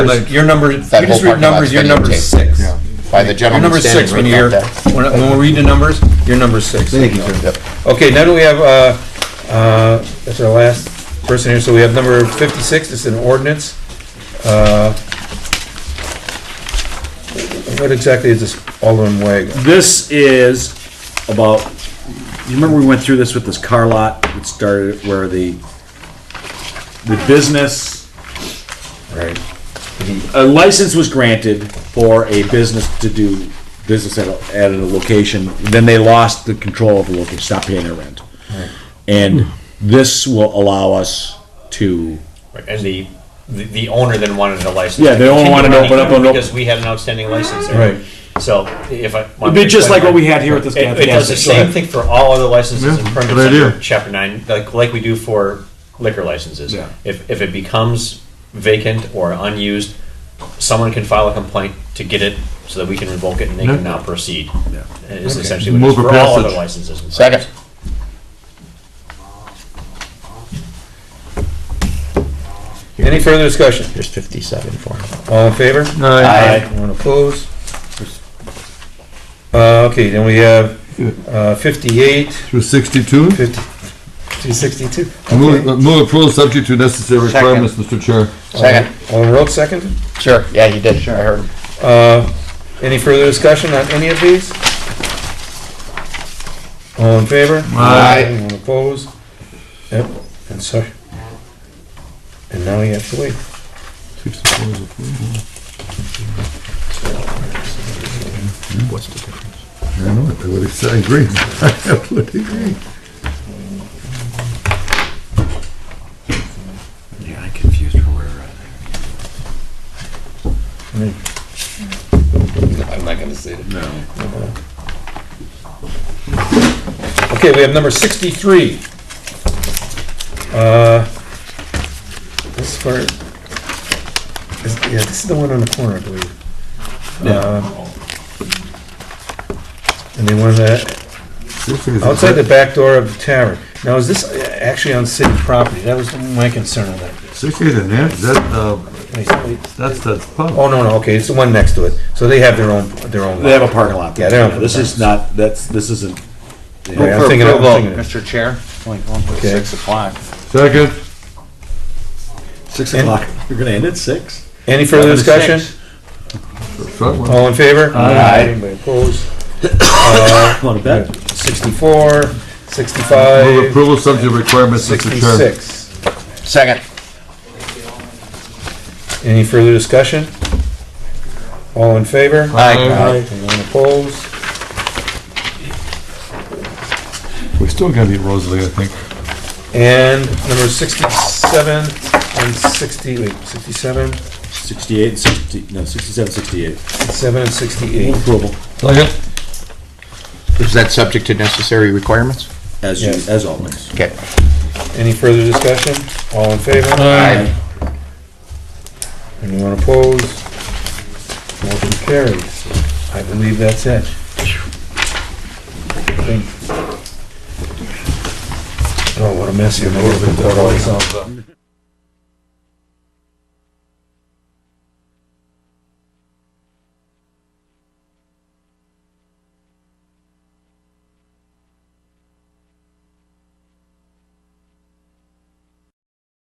Like, Your number, you That just whole read parking lot's numbers, your been number's taped. six. Yeah. By the Your gentleman number six, when standing right you're, back there. when when we read the numbers, your number's six. Thank you, sir. Yep. Okay, now do we have, uh, uh, that's our last person here, so we have number fifty-six, it's an ordinance. Uh, What exactly is this Alderman Wago? This is about, you remember we went through this with this car lot, it started where the, the business, Right. a license was granted for a business to do business at, a- at a location, then they lost the control of the location, stopped paying their rent. And this will allow us to, Right, And the, the- the owner then wanted a license. Yeah, they all wanted to Continue open up running an op- Because we had an outstanding license there. Right. So if I. it'd be just like what we had here with this. It, it does the gas station. same thing for all other licenses and Yeah, permits good idea. under chapter nine, like, like we do for liquor licenses. Yeah. If, if it becomes vacant or unused, someone can file a complaint to get it so that we can revoke it and they can now proceed. And It's essentially what it is Move for for all passage. other licenses. and Second. permits. Any further discussion? There's fifty-seven for him. All in favor? Aye. Anyone opposed? Uh, okay, then we have, uh, fifty-eight, Through 62? fifty, two sixty-two. Move uh, move approval subject to necessary Second. requirements, Mr. Chair. Second. Alderman Roach, second? Sure. Yeah, you did. I heard him. Uh, Any further discussion on any of these? All in favor? Aye. Anyone opposed? Yep, and sorry. And now you have to wait. I know, I would ex- I agree. I would agree. Yeah, I confused her where we're at. I'm not gonna say it. No. Okay, we have number sixty-three. Uh, This is for, this- yeah, this is the one on the corner, I believe. Um, And they wanted to This thing is- Outside the back door of the tavern. Now, is this uh, actually on city property? That was my concern with This is a na- that, uh, that. that's the pub. Oh, no, no, okay, it's the one next to it. So they have their own, their own. They have a parking lot. Yeah, they have a This is not, that's, this isn't. Okay, I'm thinking, I'm thinking. it. Mr. Chair, like one point Okay. six o'clock. Second. Six And- o'clock. You're gonna end at six? Any further discussion? Front one. All in favor? Aye. Anybody opposed? Want to bet? Sixty-four, Move sixty-five, approval subject to requirements, Mr. Chair. sixty-six. Second. Any further discussion? All in favor? Aye. Anyone opposed? We're still gonna be Rosalie, I think. And number sixty-seven and sixty, wait, sixty-seven, Sixty-eight, sixty, no, sixty-seven, sixty-eight. seven and sixty-eight. Move approval, Second. Is that subject to necessary requirements? as you, Yes. as always. Okay. Any further discussion? All in favor? Aye. Anyone opposed? Motion carries. I believe that's it. Thank- Oh, what a mess you made.